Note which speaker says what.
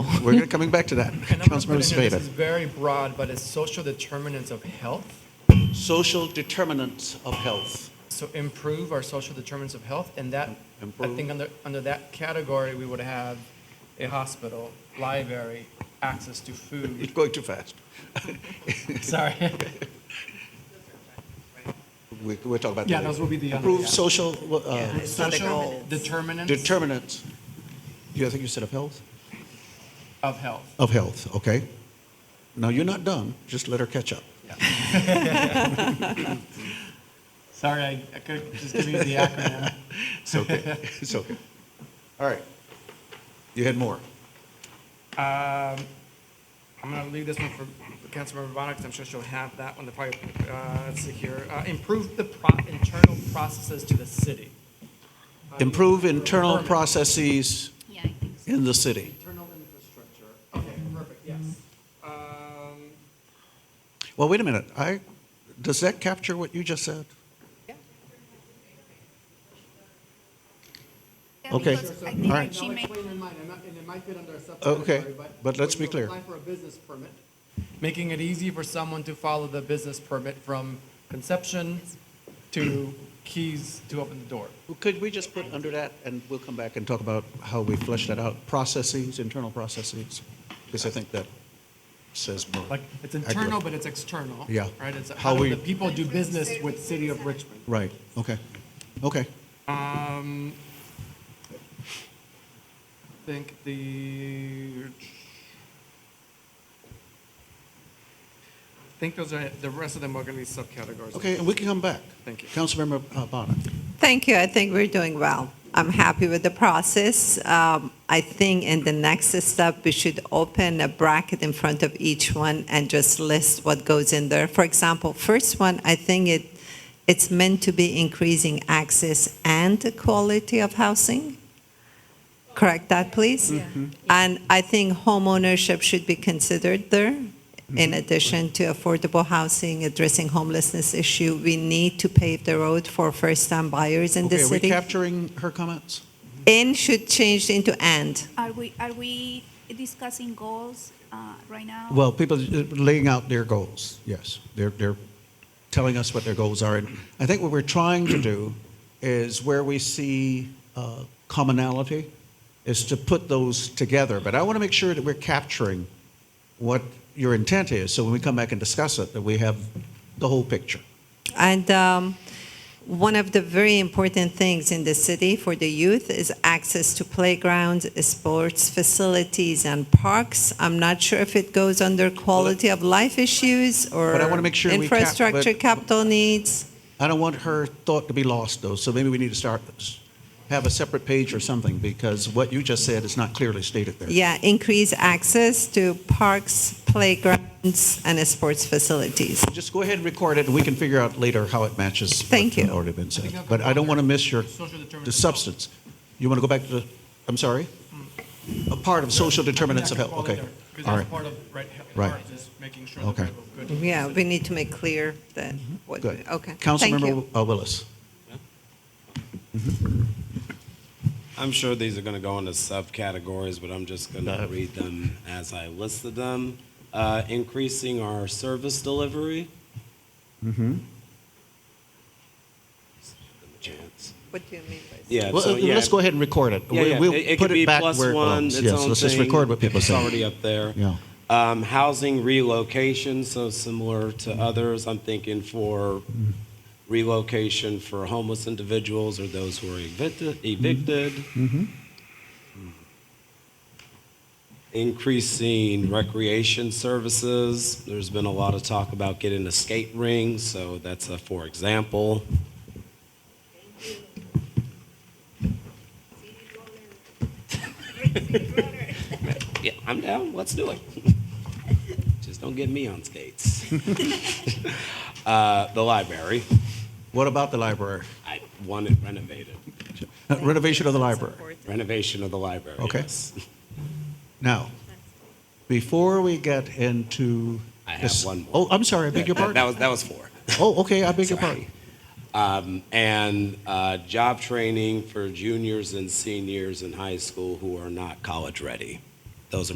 Speaker 1: We're gonna- coming back to that.
Speaker 2: And I'm gonna put
Speaker 1: Councilmember
Speaker 2: in here, This is
Speaker 1: Zepeda.
Speaker 2: very broad, but it's social determinants of health.
Speaker 3: social determinants of health.
Speaker 2: So improve our social determinants of health, and that, I
Speaker 3: Improve.
Speaker 2: think under, under that category, we would have a hospital, library, access to
Speaker 3: It's
Speaker 2: food.
Speaker 3: going too fast.
Speaker 2: Sorry.
Speaker 3: We're, we're talking about.
Speaker 2: Yeah,
Speaker 3: that.
Speaker 2: those will be the other,
Speaker 3: Improve
Speaker 2: yeah.
Speaker 3: social uh,
Speaker 4: It's not the
Speaker 2: Social
Speaker 4: goals.
Speaker 2: determinants
Speaker 3: determinants. You, I think you said of health?
Speaker 2: of health.
Speaker 3: Of health, okay. Now, you're not done, just let her catch up.
Speaker 2: Sorry, I I could just give you the acronym.
Speaker 3: It's okay, it's okay. All right. You had more.
Speaker 2: Um, I'm gonna leave this one for Councilmember Bonner, because I'm sure she'll have that one, the probably, uh, let's see here. Uh, Improve the pro- internal processes to the city. Uh,
Speaker 3: Improve internal processes
Speaker 4: Yeah, I think so.
Speaker 3: in the city.
Speaker 2: Internal infrastructure, okay, perfect, yes. Um,
Speaker 3: Well, wait a minute, I, does that capture what you just said?
Speaker 4: Yeah,
Speaker 3: Okay.
Speaker 4: because I
Speaker 3: All
Speaker 4: think
Speaker 3: right.
Speaker 4: she
Speaker 2: I'll
Speaker 4: may-
Speaker 2: explain in mine, I'm not- and it might fit under a
Speaker 3: Okay,
Speaker 2: subcategory, but.
Speaker 3: but let's
Speaker 2: when
Speaker 3: be
Speaker 2: you
Speaker 3: clear.
Speaker 2: apply for a business permit, Making it easy for someone to follow the business permit from conception to keys to open the door.
Speaker 3: Could we just put under that, and we'll come back and talk about how we flesh that out, processes, internal processes? Because I think that says more.
Speaker 2: Like, it's internal,
Speaker 3: accurately.
Speaker 2: but it's external.
Speaker 3: Yeah.
Speaker 2: Right, it's
Speaker 3: How
Speaker 2: how do
Speaker 3: we-
Speaker 2: the people do business with City of Richmond.
Speaker 3: Right, okay, okay.
Speaker 2: Um, I think the, I think those are, the rest of them are gonna be subcategories.
Speaker 3: Okay, and we can come back.
Speaker 2: Thank you.
Speaker 3: Councilmember uh, Bonner.
Speaker 5: Thank you. I think we're doing well. I'm happy with the process. Um, I think in the next step, we should open a bracket in front of each one and just list what goes in there. For example, first one, I think it, it's meant to be increasing access and the quality of housing. Correct that, please?
Speaker 3: Mm-hmm.
Speaker 5: And I think homeownership should be considered there. In
Speaker 3: Mm-hmm.
Speaker 5: addition to affordable housing, addressing homelessness issue, we need to pave the road for first-time buyers in the
Speaker 3: Okay, are we
Speaker 5: city.
Speaker 3: capturing her comments?
Speaker 5: And should change into and.
Speaker 4: Are we, are we discussing goals uh, right now?
Speaker 3: Well, people uh, laying out their goals, yes. They're, they're telling us what their goals are. And I think what we're trying to do is where we see uh, commonality is to put those together. But I want to make sure that we're capturing what your intent is. So when we come back and discuss it, that we have the whole picture.
Speaker 5: And um, one of the very important things in the city for the youth is access to playgrounds, sports facilities, and parks. I'm not sure if it goes under quality of life issues or
Speaker 3: But I wanna make sure we cap-
Speaker 5: infrastructure
Speaker 3: but-
Speaker 5: capital needs.
Speaker 3: I don't want her thought to be lost, though. So maybe we need to start have a separate page or something because what you just said is not clearly stated there.
Speaker 5: Yeah, increase access to parks, playgrounds, and sports facilities.
Speaker 3: Just go ahead and record it, and we can figure out later how it matches.
Speaker 5: Thank
Speaker 3: what's
Speaker 5: you.
Speaker 3: Already been said,
Speaker 2: think I'll
Speaker 3: but
Speaker 2: come
Speaker 3: I don't
Speaker 2: back
Speaker 3: want to
Speaker 2: here.
Speaker 3: miss your,
Speaker 2: Social determinants
Speaker 3: the
Speaker 2: of
Speaker 3: substance. You want to go back to the, I'm sorry? A part of social determinants of health, okay.
Speaker 2: Because
Speaker 3: All
Speaker 2: that's
Speaker 3: right,
Speaker 2: part of, right,
Speaker 3: Right.
Speaker 2: part is making sure that
Speaker 3: Okay.
Speaker 2: we have a good.
Speaker 5: Yeah, we need to make clear that, what,
Speaker 3: Mm-hmm. good.
Speaker 5: okay. Thank you.
Speaker 3: Councilmember uh, Willis.
Speaker 6: I'm sure these are going to go into subcategories, but I'm just going to read them as I listed them. Uh, increasing our service delivery. Mm-hmm. Chance.
Speaker 5: What do you mean by?
Speaker 6: Yeah.
Speaker 3: Well,
Speaker 6: so,
Speaker 3: uh,
Speaker 6: yeah.
Speaker 3: Let's go ahead and record it.
Speaker 6: Yeah,
Speaker 3: We-
Speaker 6: yeah.
Speaker 3: We'll
Speaker 6: it, it
Speaker 3: put
Speaker 6: could be
Speaker 3: it back
Speaker 6: plus
Speaker 3: where it
Speaker 6: one.
Speaker 3: belongs.
Speaker 6: Its
Speaker 3: Yes,
Speaker 6: own
Speaker 3: let's just
Speaker 6: thing.
Speaker 3: record what people
Speaker 6: It's already
Speaker 3: say.
Speaker 6: up there.
Speaker 3: Yeah.
Speaker 6: Um, housing relocation, so similar to others, I'm thinking for relocation for homeless individuals or those who are evicted. evicted.
Speaker 3: Mm-hmm.
Speaker 6: Increasing recreation services. There's been a lot of talk about getting a skate ring, so that's a for example. Yeah, I'm down. Let's do it. Just don't get me on skates. uh, the library.
Speaker 3: What about the library?
Speaker 6: I want it renovated.
Speaker 3: Uh, Renovation of the library.
Speaker 6: Renovation of the library.
Speaker 3: Okay.
Speaker 6: yes.
Speaker 3: Now, before we get into.
Speaker 6: I have
Speaker 3: this-
Speaker 6: one more.
Speaker 3: Oh, I'm sorry, I beg your
Speaker 6: That- That
Speaker 3: pardon.
Speaker 6: was, that was four.
Speaker 3: Oh, okay, I beg your
Speaker 6: Sorry.
Speaker 3: pardon.
Speaker 6: Um, and uh, job training for juniors and seniors in high school who are not college ready.